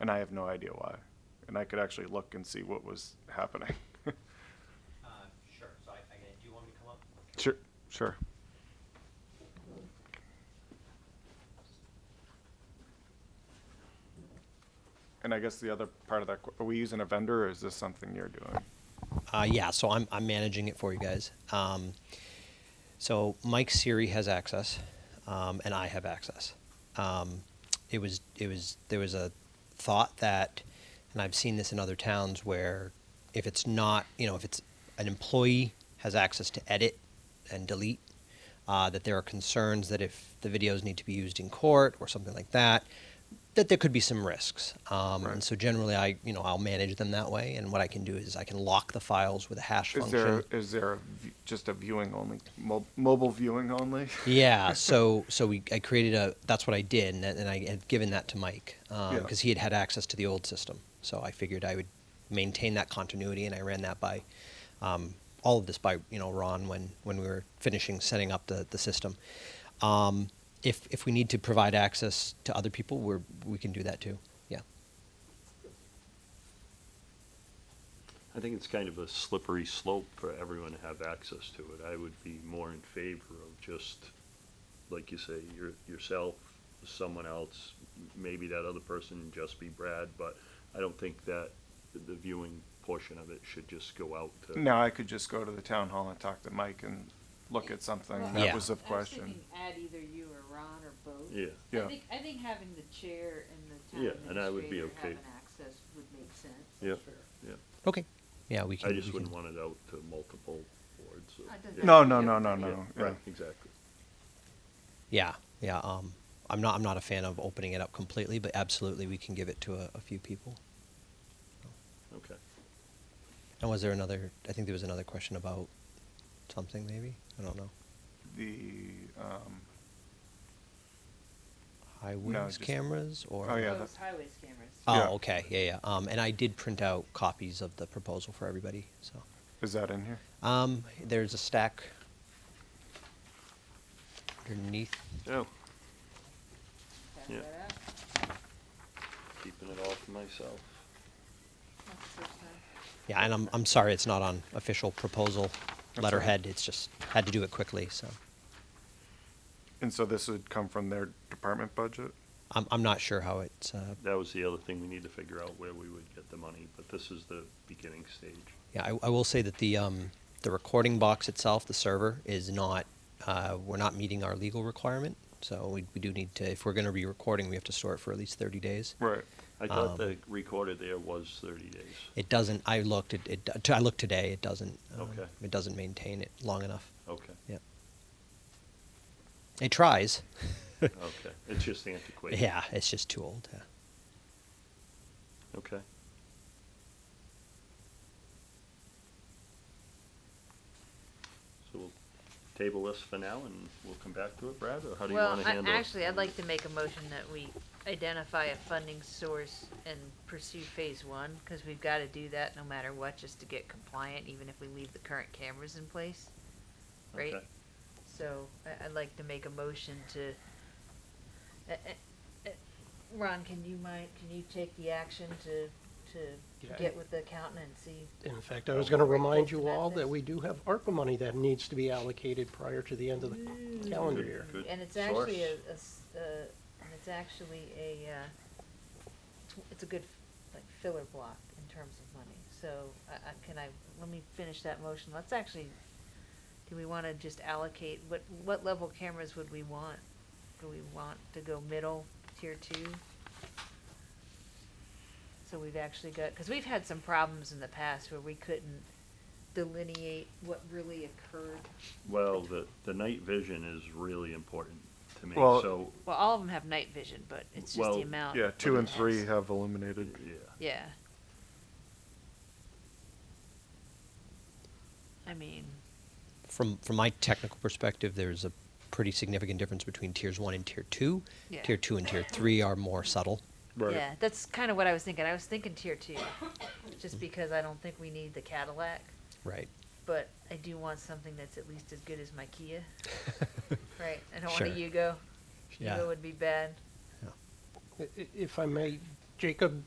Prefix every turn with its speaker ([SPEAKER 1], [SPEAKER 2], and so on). [SPEAKER 1] and I have no idea why. And I could actually look and see what was happening.
[SPEAKER 2] Uh, Sure, so I, I can- do you want me to come up?
[SPEAKER 1] sure, sure. And I guess the other part of that, que- are we using a vendor or is this something you're doing?
[SPEAKER 2] Uh, yeah, so I'm, I'm managing it for you guys. Um, so Mike Siri has access, um, and I have access. Um, it was it was there was a thought that, and I've seen this in other towns where, if it's not you know if it's an employee has access to edit and delete, uh, that there are concerns that if the videos need to be used in court or something like that, that there could be some risks. Um,
[SPEAKER 1] Right.
[SPEAKER 2] And so generally, I you know I'll manage them that way. And what I can do is I can lock the files with a hash
[SPEAKER 1] Is
[SPEAKER 2] function.
[SPEAKER 1] there, is there a v- just a viewing only, mo- mobile viewing only?
[SPEAKER 2] yeah so so we i created a that's what i did and, and i had given that to mike because
[SPEAKER 1] Yeah.
[SPEAKER 2] he had had access to the old system so i figured i would maintain that continuity and i ran that by um, all of this by you know ron when when we were finishing setting up the, the system um, if if we need to provide access to other people we're we can do that too yeah
[SPEAKER 3] I think it's kind of a slippery slope for everyone to have access to it. I would be more in favor of just, like you say, your, yourself, someone else, m- maybe that other person, just be Brad, but I don't think that the viewing portion of it should just go out to.
[SPEAKER 1] No, I could just go to the town hall and talk to Mike and look at something.
[SPEAKER 4] Well,
[SPEAKER 1] That
[SPEAKER 2] Yeah.
[SPEAKER 1] was the
[SPEAKER 4] I was
[SPEAKER 1] question.
[SPEAKER 4] thinking add either you or Ron or both.
[SPEAKER 3] Yeah,
[SPEAKER 1] Yeah.
[SPEAKER 4] I think, I think having the chair and the
[SPEAKER 3] Yeah,
[SPEAKER 4] town
[SPEAKER 3] and I would be
[SPEAKER 4] administrator
[SPEAKER 3] okay.
[SPEAKER 4] having access would make sense.
[SPEAKER 3] yeah, yeah.
[SPEAKER 2] okay yeah we can
[SPEAKER 3] I
[SPEAKER 2] we
[SPEAKER 3] just
[SPEAKER 2] can-
[SPEAKER 3] wouldn't want it out to multiple boards. so-
[SPEAKER 4] Oh, it doesn't
[SPEAKER 3] yeah,
[SPEAKER 1] No, no, no, no,
[SPEAKER 3] yeah,
[SPEAKER 1] no. yeah.
[SPEAKER 3] Right, exactly.
[SPEAKER 2] Yeah, yeah. Um, I'm not. I'm not a fan of opening it up completely, but absolutely, we can give it to a, a few people.
[SPEAKER 3] Okay.
[SPEAKER 2] And was there another? I think there was another question about something. Maybe I don't know.
[SPEAKER 1] The, um,
[SPEAKER 2] Highways
[SPEAKER 1] just-
[SPEAKER 2] cameras or
[SPEAKER 1] Oh, yeah,
[SPEAKER 4] Those
[SPEAKER 1] that-
[SPEAKER 4] highways cameras.
[SPEAKER 2] Oh,
[SPEAKER 1] Yeah.
[SPEAKER 2] okay, yeah, yeah. Um, and I did print out copies of the proposal for everybody. So
[SPEAKER 1] is that in here?
[SPEAKER 2] um, there's a stack underneath.
[SPEAKER 3] Oh,
[SPEAKER 4] Pass
[SPEAKER 3] Yeah.
[SPEAKER 4] that out.
[SPEAKER 3] keeping it all to myself.
[SPEAKER 4] That's the first time.
[SPEAKER 2] Yeah, and I'm I'm sorry, it's not on official proposal
[SPEAKER 1] all right.
[SPEAKER 2] letterhead. It's just had to do it quickly. So.
[SPEAKER 1] And so this would come from their department budget?
[SPEAKER 2] I'm, I'm not sure how it's, uh,
[SPEAKER 3] That was the other thing we need to figure out where we would get the money, but this is the beginning stage.
[SPEAKER 2] yeah, I, I will say that the, um, the recording box itself, the server, is not, uh, we're not meeting our legal requirement. So we, we do need to, if we're going to be recording, we have to store it for at least 30 days.
[SPEAKER 1] Right.
[SPEAKER 3] I thought
[SPEAKER 2] Um,
[SPEAKER 3] the recorder there was thirty days.
[SPEAKER 2] It doesn't, I looked, it, it, t- I looked today, it doesn't, um,
[SPEAKER 3] Okay.
[SPEAKER 2] it doesn't maintain it long enough.
[SPEAKER 3] Okay,
[SPEAKER 2] Yeah. It tries.
[SPEAKER 3] okay. It's just antiquated.
[SPEAKER 2] Yeah, it's just too old. Yeah.
[SPEAKER 3] Okay. So we'll table this for now and we'll come back to it, Brad, or how do you
[SPEAKER 5] Well,
[SPEAKER 3] wanna
[SPEAKER 5] I-
[SPEAKER 3] handle it?
[SPEAKER 5] actually, I'd like to make a motion that we identify a funding source and pursue phase one, because we've got to do that no matter what, just to get compliant, even if we leave the current cameras in place. Right?
[SPEAKER 3] Okay.
[SPEAKER 5] So I, I'd like to make a motion to, uh, uh, uh, Ron, can you mind, can you take the action to,
[SPEAKER 6] Yeah.
[SPEAKER 5] to get with the accountant and see?
[SPEAKER 6] In fact, I was going to remind you
[SPEAKER 5] Recording
[SPEAKER 6] all that
[SPEAKER 5] methods.
[SPEAKER 6] we do have ARPA money that needs to be allocated prior to the end of the calendar
[SPEAKER 3] Good-
[SPEAKER 6] year.
[SPEAKER 3] good
[SPEAKER 5] And it's actually a,
[SPEAKER 3] source.
[SPEAKER 5] a s- uh, and it's actually a, uh, it's, w- it's a good, like filler block in terms of money. So, I, I, can I, let me finish that motion. Let's actually, do we wanna just allocate, what, what level cameras would we want? Do we want to go middle, tier two? So we've actually got, cause we've had some problems in the past where we couldn't delineate what really occurred.
[SPEAKER 3] Well, the, the night vision is really important to me,
[SPEAKER 1] Well-
[SPEAKER 3] so,
[SPEAKER 5] Well, all of them have night vision, but it's just
[SPEAKER 3] Well,
[SPEAKER 5] the amount.
[SPEAKER 1] Yeah, two and
[SPEAKER 5] Yes.
[SPEAKER 1] three have illuminated.
[SPEAKER 3] yeah.
[SPEAKER 5] Yeah. I mean,
[SPEAKER 2] from from my technical perspective, there's a pretty significant difference between tiers one and tier two.
[SPEAKER 5] Yeah.
[SPEAKER 2] Tier two and tier three are more subtle.
[SPEAKER 1] Right.
[SPEAKER 5] yeah, that's kind of what I was thinking. I was thinking tier two, just because I don't think we need the Cadillac,
[SPEAKER 2] Right.
[SPEAKER 5] but I do want something that's at least as good as my Kia. right. I don't want
[SPEAKER 2] Sure.
[SPEAKER 5] a Yugo.
[SPEAKER 2] Yeah.
[SPEAKER 5] Yugo would be bad.
[SPEAKER 6] I- i- If I may, Jacob